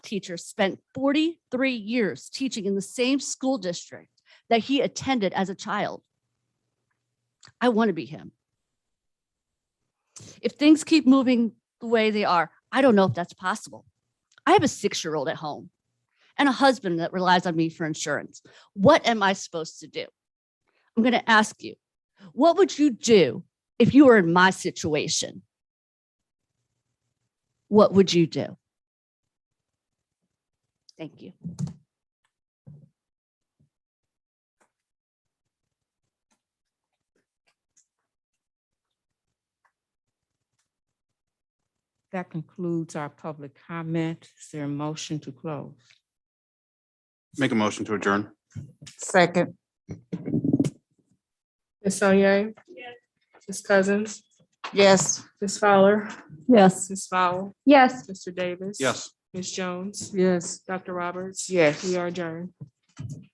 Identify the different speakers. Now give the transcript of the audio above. Speaker 1: teacher spent 43 years teaching in the same school district that he attended as a child. I want to be him. If things keep moving the way they are, I don't know if that's possible. I have a six year old at home and a husband that relies on me for insurance. What am I supposed to do? I'm going to ask you, what would you do if you were in my situation? What would you do? Thank you.
Speaker 2: That concludes our public comment. Is there a motion to close?
Speaker 3: Make a motion to adjourn.
Speaker 4: Second.
Speaker 5: Ms. Sonier? Ms. Cousins?
Speaker 4: Yes.
Speaker 5: Ms. Fowler?
Speaker 1: Yes.
Speaker 5: Ms. Fowle?
Speaker 1: Yes.
Speaker 5: Mr. Davis?
Speaker 3: Yes.
Speaker 5: Ms. Jones?
Speaker 2: Yes.
Speaker 5: Dr. Roberts?
Speaker 4: Yes.
Speaker 5: We are adjourned.